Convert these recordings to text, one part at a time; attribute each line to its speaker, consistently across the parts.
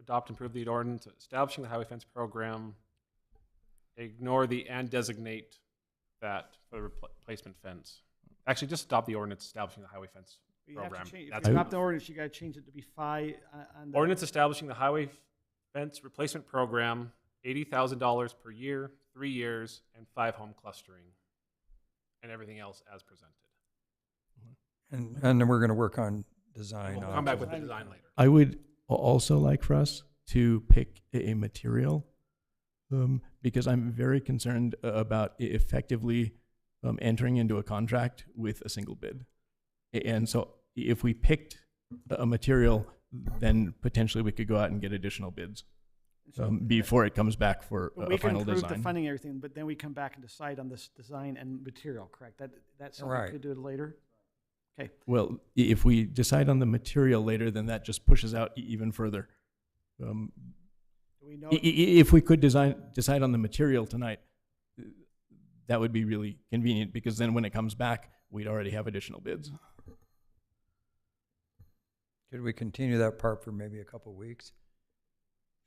Speaker 1: adopt and approve the ordinance establishing the highway fence program. Ignore the and designate that for the repl- replacement fence. Actually, just adopt the ordinance establishing the highway fence.
Speaker 2: You have to
Speaker 1: Program.
Speaker 2: change- If
Speaker 1: That's
Speaker 2: you
Speaker 3: it.
Speaker 2: adopt the ordinance, you gotta change it to be fi, uh, on the.
Speaker 1: Ordinance establishing the highway fence replacement program, eighty thousand dollars per year, three years, and five home clustering. And everything else as presented.
Speaker 4: And, and then we're gonna work on design.
Speaker 1: We'll
Speaker 4: on-
Speaker 1: come back with the design later.
Speaker 3: I would al- also like for us to pick a a material um, because I'm very concerned a- about e- effectively um, entering into a contract with a single bid. A- And so i- if we picked a a material, then potentially we could go out and get additional bids um, before it comes back for
Speaker 2: But
Speaker 3: a
Speaker 2: We
Speaker 3: a
Speaker 2: can
Speaker 3: final
Speaker 2: approve the
Speaker 3: design.
Speaker 2: funding and everything, but then we come back and decide on this design and material, correct? That, that's something we
Speaker 4: Right.
Speaker 2: could do later? Okay,
Speaker 3: Well, i- if we decide on the material later, then that just pushes out e- even further. Um,
Speaker 2: do we know,
Speaker 3: I- i- i- If we could design, decide on the material tonight, uh, that would be really convenient, because then when it comes back, we'd already have additional bids.
Speaker 4: Could we continue that part for maybe a couple weeks?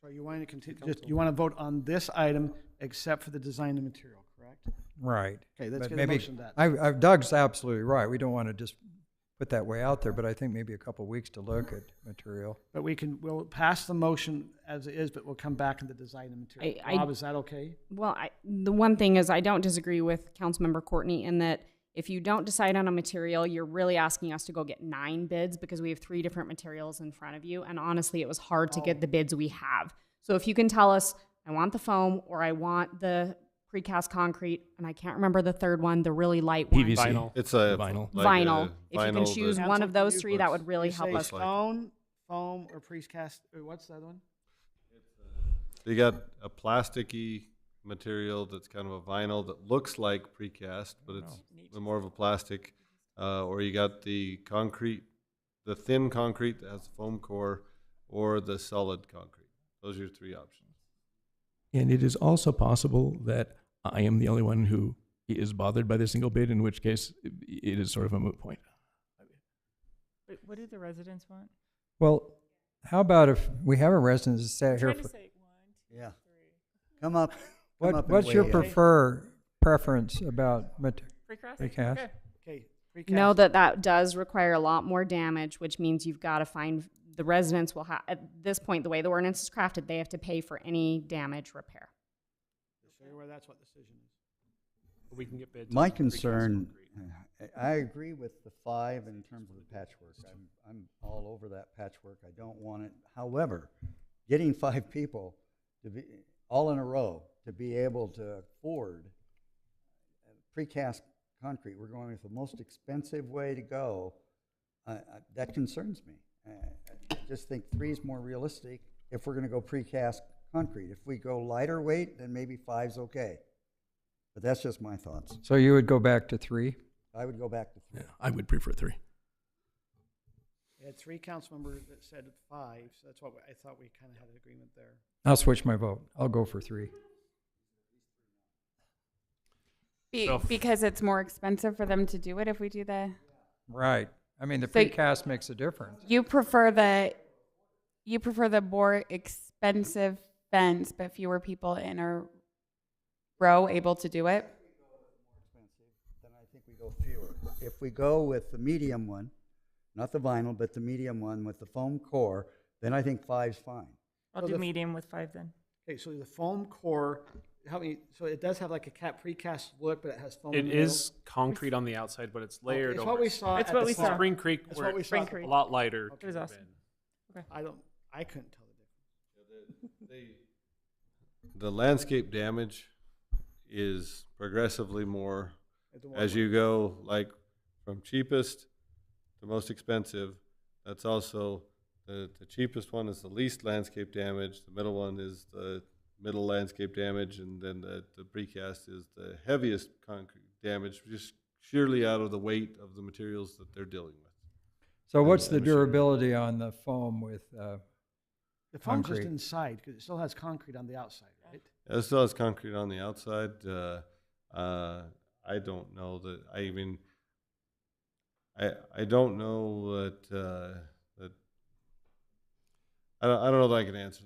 Speaker 2: so you want to continue, just, you want to vote on this item except for the design and material, correct?
Speaker 4: Right.
Speaker 2: Okay, let's
Speaker 4: But
Speaker 2: get a
Speaker 4: maybe-
Speaker 2: motion to that.
Speaker 4: I, I, Doug's absolutely right. We don't want to just put that way out there, but I think maybe a couple weeks to look at material.
Speaker 2: But we can, we'll pass the motion as it is, but we'll come back in the design and material.
Speaker 5: I- I-
Speaker 2: Rob, is that okay?
Speaker 5: Well, I, the one thing is I don't disagree with Councilmember Courtney in that if you don't decide on a material, you're really asking us to go get nine bids because we have three different materials in front of you. And honestly, it was hard to
Speaker 6: Oh.
Speaker 5: get the bids we have. So if you can tell us, I want the foam or I want the precast concrete, and I can't remember the third one, the really light one.
Speaker 3: PVC.
Speaker 1: Vinyl.
Speaker 7: It's a
Speaker 3: Vinyl.
Speaker 7: like
Speaker 5: Vinyl.
Speaker 7: a
Speaker 5: If you can
Speaker 7: vinyl
Speaker 5: choose
Speaker 7: that-
Speaker 5: one of those three, that
Speaker 7: Looks-
Speaker 5: would really
Speaker 2: You
Speaker 5: help
Speaker 2: say
Speaker 5: us.
Speaker 7: like-
Speaker 2: Stone, foam, or precast, or what's the other one?
Speaker 7: You got a plasticky material that's kind of a vinyl that looks like precast, but it's more of a plastic. Uh, or you got the concrete, the thin concrete that has a foam core, or the solid concrete. Those are your three options.
Speaker 3: And it is also possible that I am the only one who is bothered by the single bid, in which case i- it is sort of a moot point.
Speaker 8: But what do the residents want?
Speaker 4: Well, how about if we have a resident that sat here
Speaker 8: Trying to
Speaker 4: for,
Speaker 8: say one,
Speaker 9: Yeah. Come up. come up
Speaker 4: what,
Speaker 9: and
Speaker 4: what's your
Speaker 9: weigh in.
Speaker 4: prefer, preference about material?
Speaker 8: precast?
Speaker 4: Precast.
Speaker 8: Okay.
Speaker 2: Okay, precast.
Speaker 5: know that that does require a lot more damage, which means you've got to find, the residents will have, at this point, the way the ordinance is crafted, they have to pay for any damage repair.
Speaker 2: Show you where that's what decision is.
Speaker 1: We can get bids. on
Speaker 9: My
Speaker 1: precast
Speaker 9: concern,
Speaker 1: concrete.
Speaker 9: I I agree with the five in terms of the patchwork. I'm, I'm all over that patchwork. I don't want it. However, getting five people to be, all in a row, to be able to afford precast concrete, we're going with the most expensive way to go. I- I- That concerns me. Uh, I just think three is more realistic if we're gonna go precast concrete. If we go lighter weight, then maybe five's okay. But that's just my thoughts.
Speaker 4: So you would go back to three?
Speaker 9: I would go back to three.
Speaker 3: Yeah, I would prefer three.
Speaker 2: We had three council members that said five, so that's what we- I thought we kind of had an agreement there.
Speaker 4: I'll switch my vote. I'll go for three.
Speaker 6: Be,
Speaker 1: So f-
Speaker 6: because it's more expensive for them to do it if we do the.
Speaker 4: Right. I mean, the
Speaker 6: So y-
Speaker 4: precast makes a difference.
Speaker 6: You prefer the, you prefer the more expensive fence, but fewer people in a row able to do it.
Speaker 9: Then I think we go fewer. If we go with the medium one, not the vinyl, but the medium one with the foam core, then I think five's fine.
Speaker 8: I'll
Speaker 2: Well,
Speaker 8: do
Speaker 2: the-
Speaker 8: medium with five then.
Speaker 2: Okay, so the foam core, help me, so it does have like a cap precast look, but it has foam in
Speaker 1: It
Speaker 2: the middle?
Speaker 1: is concrete on the outside, but it's
Speaker 2: Okay,
Speaker 1: layered
Speaker 2: It's
Speaker 1: over.
Speaker 2: what we saw
Speaker 8: It's
Speaker 2: at
Speaker 8: what
Speaker 2: the
Speaker 8: we
Speaker 2: farm.
Speaker 8: saw.
Speaker 1: Spring Creek,
Speaker 2: That's
Speaker 1: where
Speaker 2: what we
Speaker 1: it's
Speaker 2: saw at the
Speaker 1: a
Speaker 8: Creek.
Speaker 1: lot lighter.
Speaker 2: It
Speaker 1: could
Speaker 8: was
Speaker 1: have
Speaker 8: awesome.
Speaker 1: been.
Speaker 2: I don't, I couldn't tell the difference.
Speaker 7: The landscape damage is progressively more
Speaker 2: At the one
Speaker 7: as
Speaker 2: where-
Speaker 7: you go like from cheapest to most expensive that's also the, the cheapest one is the least landscape damage the middle one is the middle landscape damage and then the, the precast is the heaviest concrete damage just sheerly out of the weight of the materials that they're dealing with
Speaker 4: So
Speaker 7: And-
Speaker 4: what's the
Speaker 7: and sure.
Speaker 4: durability on the foam with, uh,
Speaker 2: The foam's just
Speaker 4: concrete.
Speaker 2: inside, because it still has concrete on the outside, right?
Speaker 7: It still has concrete on the outside. Uh, uh, I don't know that. I even I I don't know that uh, that I don't, I don't know that I can answer that.